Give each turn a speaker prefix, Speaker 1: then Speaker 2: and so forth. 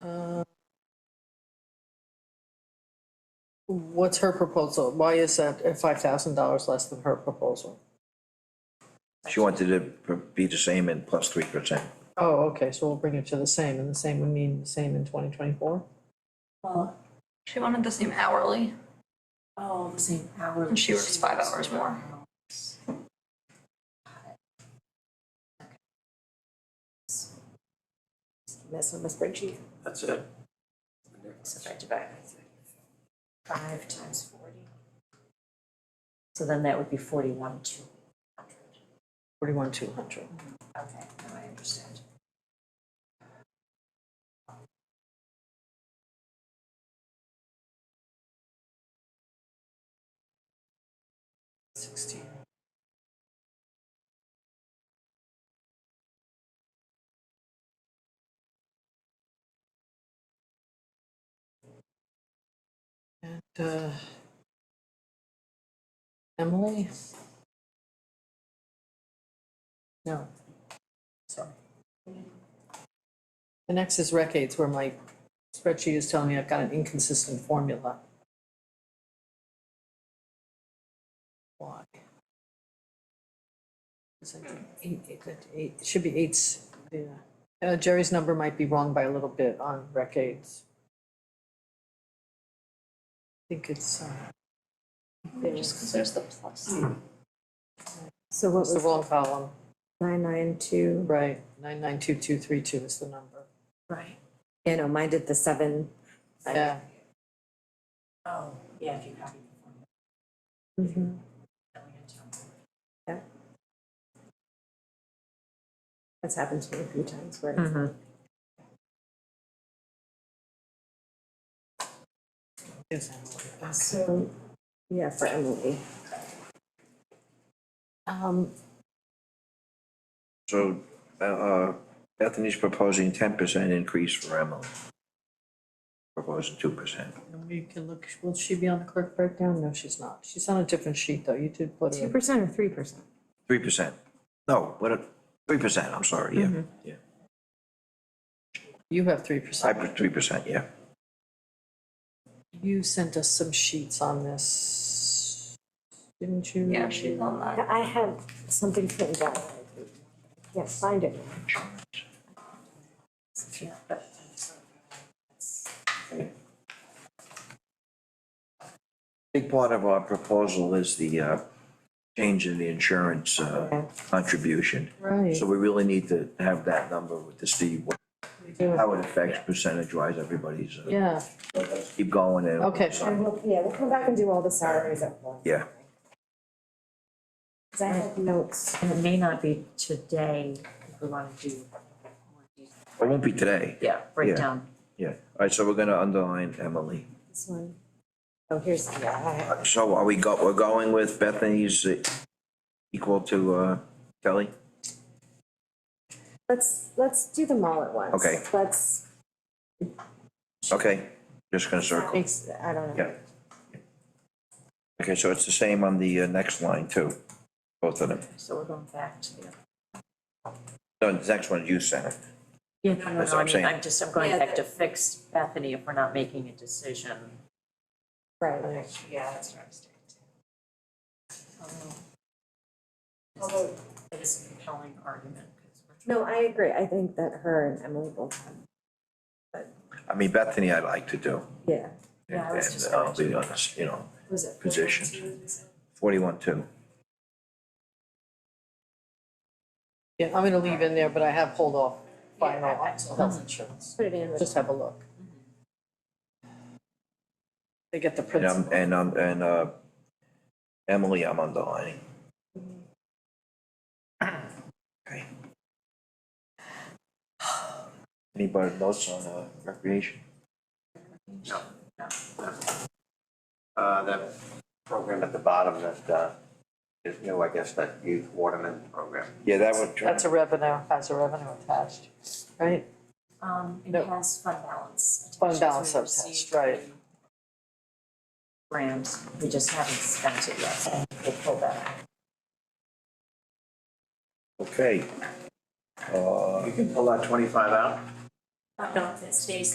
Speaker 1: Uh, What's her proposal? Why is that five thousand dollars less than her proposal?
Speaker 2: She wanted it to be the same and plus three percent.
Speaker 1: Oh, okay, so we'll bring it to the same, and the same would mean the same in twenty twenty-four?
Speaker 3: Well,
Speaker 4: She wanted the same hourly.
Speaker 3: oh, the same hour.
Speaker 4: And she works five hours more.
Speaker 3: Mess with my spreadsheet,
Speaker 5: That's it.
Speaker 3: so if I divide by thirty-five times forty. So then that would be forty-one, two hundred.
Speaker 1: Forty-one, two hundred.
Speaker 3: Okay, now I understand.
Speaker 1: Sixteen. And, uh, Emily? No, sorry. The next is rec aids, where my spreadsheet is telling me I've got an inconsistent formula. Why? It's like eight, eight, that eight- it should be eights, yeah. Uh, Jerry's number might be wrong by a little bit on rec aids. I think it's, uh,
Speaker 4: Just because there's the plus.
Speaker 6: So what
Speaker 1: it's the
Speaker 6: was
Speaker 1: wrong column,
Speaker 6: nine nine two?
Speaker 1: right, nine nine two two three two is the number,
Speaker 3: Right.
Speaker 6: You know, mine did the seven. I-
Speaker 1: yeah.
Speaker 3: Oh, yeah, if you copy the formula,
Speaker 6: Mhm.
Speaker 3: then we can tell them.
Speaker 6: That's happened to me a few times where it's like,
Speaker 1: Yes, Emily.
Speaker 6: so, yeah, for Emily.
Speaker 1: Um,
Speaker 2: So, uh, uh, Bethany's proposing ten percent increase for Emily. Proposing two percent.
Speaker 1: and we can look, will she be on the clerk breakdown? No, she's not, she's on a different sheet though, you did put her.
Speaker 6: Two
Speaker 1: in.
Speaker 6: percent or three percent?
Speaker 2: Three percent. No, what, a- three percent, I'm sorry, yeah,
Speaker 1: Mm-hmm.
Speaker 2: yeah.
Speaker 1: You have three
Speaker 2: I
Speaker 1: percent.
Speaker 2: put three percent, yeah.
Speaker 1: You sent us some sheets on this, didn't you?
Speaker 4: Yeah, she's on that.
Speaker 6: I have something printed out. Yes, find it.
Speaker 3: Yeah, but.
Speaker 2: Big part of our proposal is the, uh, change in the insurance, uh, contribution.
Speaker 1: Right.
Speaker 2: So we really need to have that number with the Steve, what-
Speaker 1: We do.
Speaker 2: how it affects percentage wise everybody's. uh,
Speaker 1: Yeah,
Speaker 2: so let's Keep going and.
Speaker 1: okay,
Speaker 6: And we'll, yeah, we'll come back and do all the salaries at once.
Speaker 2: Yeah.
Speaker 6: Cause I have notes.
Speaker 3: And it may not be today, if we wanna do more detail.
Speaker 2: It won't be today,
Speaker 3: Yeah, breakdown.
Speaker 2: yeah. All right, so we're gonna underline Emily.
Speaker 6: This one. Oh, here's, yeah,
Speaker 2: Uh, So are we go, we're going with Bethany's uh, equal to, uh, Kelly?
Speaker 6: I, let's, let's do them all at once.
Speaker 2: Okay.
Speaker 6: Let's,
Speaker 2: Okay, just gonna circle.
Speaker 6: makes, I don't know.
Speaker 2: Yeah. Okay, so it's the same on the uh, next line too, both of them.
Speaker 3: So we're going back to the. other-
Speaker 2: No, the next one you sent.
Speaker 3: Yeah, no, no,
Speaker 2: That's
Speaker 3: no,
Speaker 2: what
Speaker 3: I
Speaker 2: I'm
Speaker 3: mean,
Speaker 2: saying.
Speaker 3: I'm just, I'm going
Speaker 6: Yeah,
Speaker 3: back to fix Bethany if we're not making a decision.
Speaker 6: Right.
Speaker 3: Yeah, that's what I was doing too. Um, Although. It is a compelling argument, because we're.
Speaker 6: No, I agree. I think that her and Emily both have,
Speaker 2: I mean, Bethany I'd like to do.
Speaker 6: yeah.
Speaker 3: Yeah, I was
Speaker 2: and-
Speaker 3: just
Speaker 2: And I'll be honest, you know,
Speaker 6: Was it?
Speaker 2: position. Forty-one two.
Speaker 1: yeah, I'm gonna leave in there, but I have hold off final
Speaker 3: Yeah, I- I-
Speaker 1: on health insurance,
Speaker 6: Put it in with
Speaker 1: just have a look. They get the
Speaker 2: And I'm,
Speaker 1: principle.
Speaker 2: and I'm, and, uh, Emily, I'm underlining. Okay. Anybody else on, uh, recreation?
Speaker 5: Uh, that program at the bottom that, uh, is new, I guess, that youth waterman program.
Speaker 2: Yeah, that would.
Speaker 1: That's a revenue, has a revenue attached, right?
Speaker 3: Um, it
Speaker 1: No.
Speaker 3: has fund balance. attached
Speaker 1: Fund
Speaker 3: as
Speaker 1: balance
Speaker 3: we
Speaker 1: attached,
Speaker 3: receive
Speaker 1: right.
Speaker 3: the Grant, we just haven't spent it yet, we'll pull that out.
Speaker 2: Okay. Uh, Uh,
Speaker 5: You can pull that twenty-five out?
Speaker 3: Uh, No, it stays